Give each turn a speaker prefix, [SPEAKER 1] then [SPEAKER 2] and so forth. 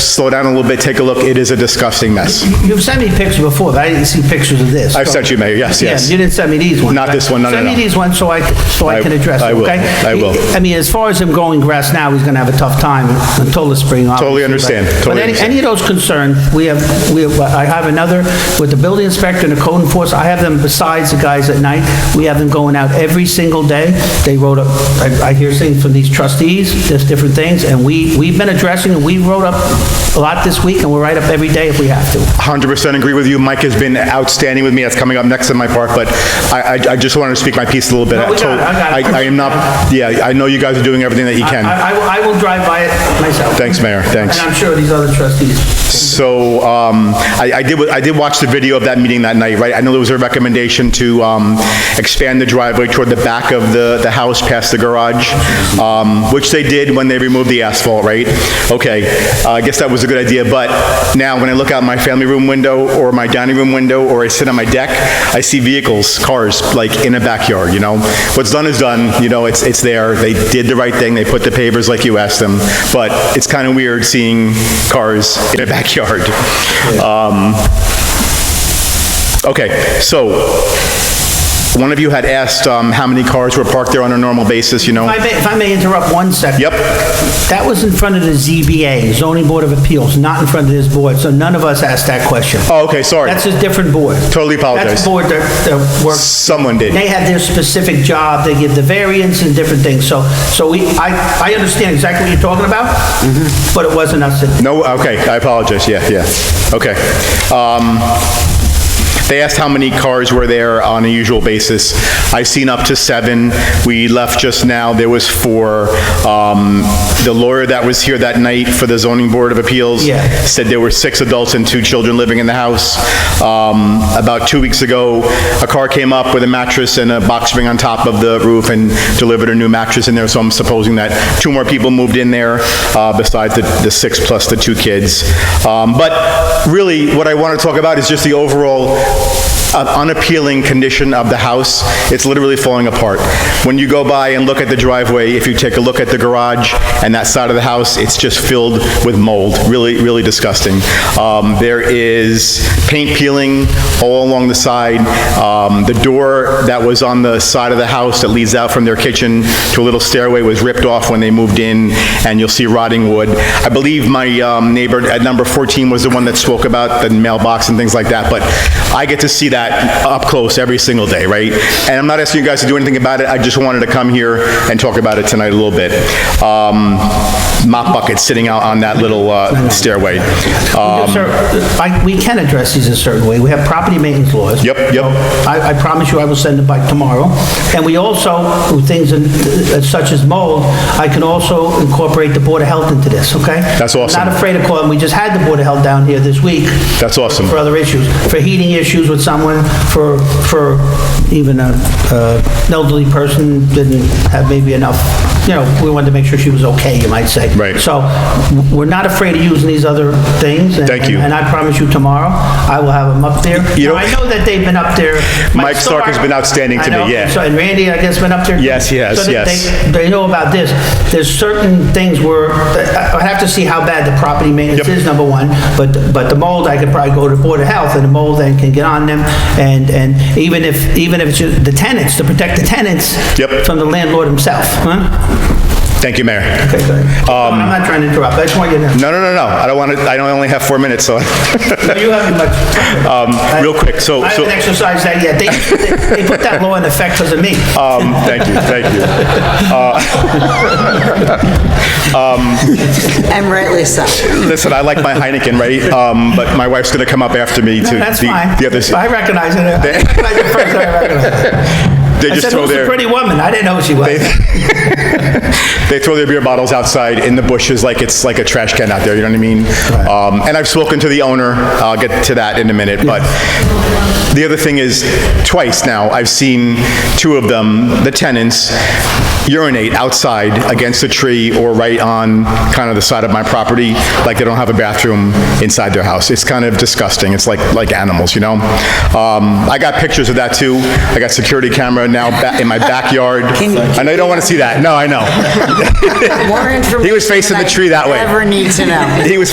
[SPEAKER 1] slow down a little bit, take a look, it is a disgusting mess.
[SPEAKER 2] You've sent me pictures before, but I didn't see pictures of this.
[SPEAKER 1] I've sent you, Mayor, yes,
[SPEAKER 2] Yeah,
[SPEAKER 1] yes.
[SPEAKER 2] You didn't send me these ones.
[SPEAKER 1] Not
[SPEAKER 2] right?
[SPEAKER 1] this one, no, no,
[SPEAKER 2] Send
[SPEAKER 1] no.
[SPEAKER 2] me these ones so I, so I
[SPEAKER 1] I-
[SPEAKER 2] can address
[SPEAKER 1] I
[SPEAKER 2] them,
[SPEAKER 1] will,
[SPEAKER 2] okay?
[SPEAKER 1] I will.
[SPEAKER 2] I mean, as far as him going grass now, he's gonna have a tough time until the spring, obviously.
[SPEAKER 1] Totally
[SPEAKER 2] but-
[SPEAKER 1] understand, totally
[SPEAKER 2] But any,
[SPEAKER 1] understand.
[SPEAKER 2] any of those concerns, we have, we have, I have another, with the building inspector and the code enforcement, I have them besides the guys at night, we have them going out every single day. They wrote up, I, I hear things from these trustees, there's different things, and we, we've been addressing, and we wrote up a lot this week, and we'll write up every day if we have to.
[SPEAKER 1] 100% agree with you. Mike has been outstanding with me. That's coming up next in my part, but I, I- I just wanted to speak my piece a little bit.
[SPEAKER 2] No, we got it, I got it.
[SPEAKER 1] I am not, yeah, I know you guys are doing everything that you can.
[SPEAKER 2] I, I will- I will drive by it myself.
[SPEAKER 1] Thanks, Mayor, thanks.
[SPEAKER 2] And I'm sure these other trustees.
[SPEAKER 1] So um, I I did, wa- I did watch the video of that meeting that night, right? I know there was a recommendation to um, expand the driveway toward the back of the, the house past the garage, um, which they did when they removed the asphalt, right? Okay, uh, I guess that was a good idea, but now when I look out my family room window or my dining room window or I sit on my deck, I see vehicles, cars, like in a backyard, you know? What's done is done, you know, it's, it's there, they did the right thing, they put the pavers like you asked them, but it's kind of weird seeing cars in a backyard. Um, Okay, so, one of you had asked um, how many cars were parked there on a normal basis, you know?
[SPEAKER 2] If I may, if I may interrupt one second.
[SPEAKER 1] Yep.
[SPEAKER 2] That was in front of the ZBA, zoning board of appeals, not in front of this board, so none of us asked that question.
[SPEAKER 1] Oh, okay, sorry,
[SPEAKER 2] That's a different board.
[SPEAKER 1] Totally apologize.
[SPEAKER 2] That's the board that, that works,
[SPEAKER 1] someone did.
[SPEAKER 2] they have their specific job, they give the variance and different things, so, so we, I, I understand exactly what you're talking about,
[SPEAKER 1] Mm-hmm.
[SPEAKER 2] but it wasn't us that
[SPEAKER 1] No, okay, I apologize, yeah, yeah, okay. Um, They asked how many cars were there on a usual basis. I've seen up to seven. We left just now, there was four. Um, The lawyer that was here that night for the zoning board of appeals
[SPEAKER 2] Yeah.
[SPEAKER 1] said there were six adults and two children living in the house. Um, About two weeks ago, a car came up with a mattress and a box spring on top of the roof and delivered a new mattress in there, so I'm supposing that two more people moved in there uh, besides the the six plus the two kids. Um, But really, what I want to talk about is just the overall an unappealing condition of the house. It's literally falling apart. When you go by and look at the driveway, if you take a look at the garage and that side of the house, it's just filled with mold. Really, really disgusting. Um, There is paint peeling all along the side. Um, The door that was on the side of the house that leads out from their kitchen to a little stairway was ripped off when they moved in, and you'll see rotting wood. I believe my um, neighbor at number 14 was the one that spoke about the mailbox and things like that, but I get to see that up close every single day, right? And I'm not asking you guys to do anything about it, I just wanted to come here and talk about it tonight a little bit. Um, Mop bucket sitting out on that little uh, stairway. Uh,
[SPEAKER 2] Sir, I- we can address these a certain way. We have property maintenance laws.
[SPEAKER 1] Yep, yep.
[SPEAKER 2] I, I promise you I will send it by tomorrow. And we also, with things in- uh, such as mold, I can also incorporate the Board of Health into this, okay?
[SPEAKER 1] That's awesome.
[SPEAKER 2] I'm Not afraid of calling, we just had the Board of Health down here this week.
[SPEAKER 1] That's awesome.
[SPEAKER 2] For other issues, for heating issues with someone, for, for even a uh, elderly person didn't have maybe enough, you know, we wanted to make sure she was okay, you might say.
[SPEAKER 1] Right.
[SPEAKER 2] So w- we're not afraid of using these other things. and-
[SPEAKER 1] Thank you.
[SPEAKER 2] And I promise you tomorrow, I will have them up there.
[SPEAKER 1] You know-
[SPEAKER 2] Now, I know that they've been up there.
[SPEAKER 1] Mike Stark has been outstanding to me,
[SPEAKER 2] I know.
[SPEAKER 1] yeah.
[SPEAKER 2] So, And Randy, I guess, been up there?
[SPEAKER 1] Yes, he has,
[SPEAKER 2] So that they-
[SPEAKER 1] yes.
[SPEAKER 2] They know about this. There's certain things where, I I have to see how bad the property maintenance
[SPEAKER 1] Yep.
[SPEAKER 2] is, number one, but, but the mold, I could probably go to Board of Health, and the mold then can get on them, and, and even if, even if it's just the tenants, to protect the tenants
[SPEAKER 1] Yep.
[SPEAKER 2] from the landlord himself, huh?
[SPEAKER 1] Thank you, Mayor.
[SPEAKER 2] Okay, good.
[SPEAKER 1] Um,
[SPEAKER 2] I'm not trying to interrupt, I just want you to know.
[SPEAKER 1] No, no, no, no, I don't want to, I only have four minutes, so,
[SPEAKER 2] No, You haven't much.
[SPEAKER 1] um, real quick, so.
[SPEAKER 2] I
[SPEAKER 1] so-
[SPEAKER 2] haven't exercised that yet. They, they- they put that law in effect because of me.
[SPEAKER 1] Um, Thank you, thank you.
[SPEAKER 3] And rightly so.
[SPEAKER 1] Listen, I like my Heineken, right? Um, But my wife's going to come up after me to.
[SPEAKER 2] That's
[SPEAKER 1] the-
[SPEAKER 2] fine.
[SPEAKER 1] The others,
[SPEAKER 2] I recognize it. I recognize it first, I recognize it.
[SPEAKER 1] they
[SPEAKER 2] I
[SPEAKER 1] just
[SPEAKER 2] said,
[SPEAKER 1] throw
[SPEAKER 2] who's the
[SPEAKER 1] their,
[SPEAKER 2] pretty woman? I didn't know who she was.
[SPEAKER 1] they throw their beer bottles outside in the bushes like it's like a trash can out there, you know what I mean? Um, And I've spoken to the owner, I'll get to that in a minute, but the other thing is, twice now, I've seen two of them, the tenants, urinate outside against a tree or right on kind of the side of my property, like they don't have a bathroom inside their house. It's kind of disgusting. It's like, like animals, you know? Um, I got pictures of that too. I got security camera now ba- in my backyard. I know you don't want to see that. No, I know.
[SPEAKER 3] More information.
[SPEAKER 1] He was facing the
[SPEAKER 3] than I
[SPEAKER 1] tree that way.
[SPEAKER 3] Ever need to know.
[SPEAKER 1] He was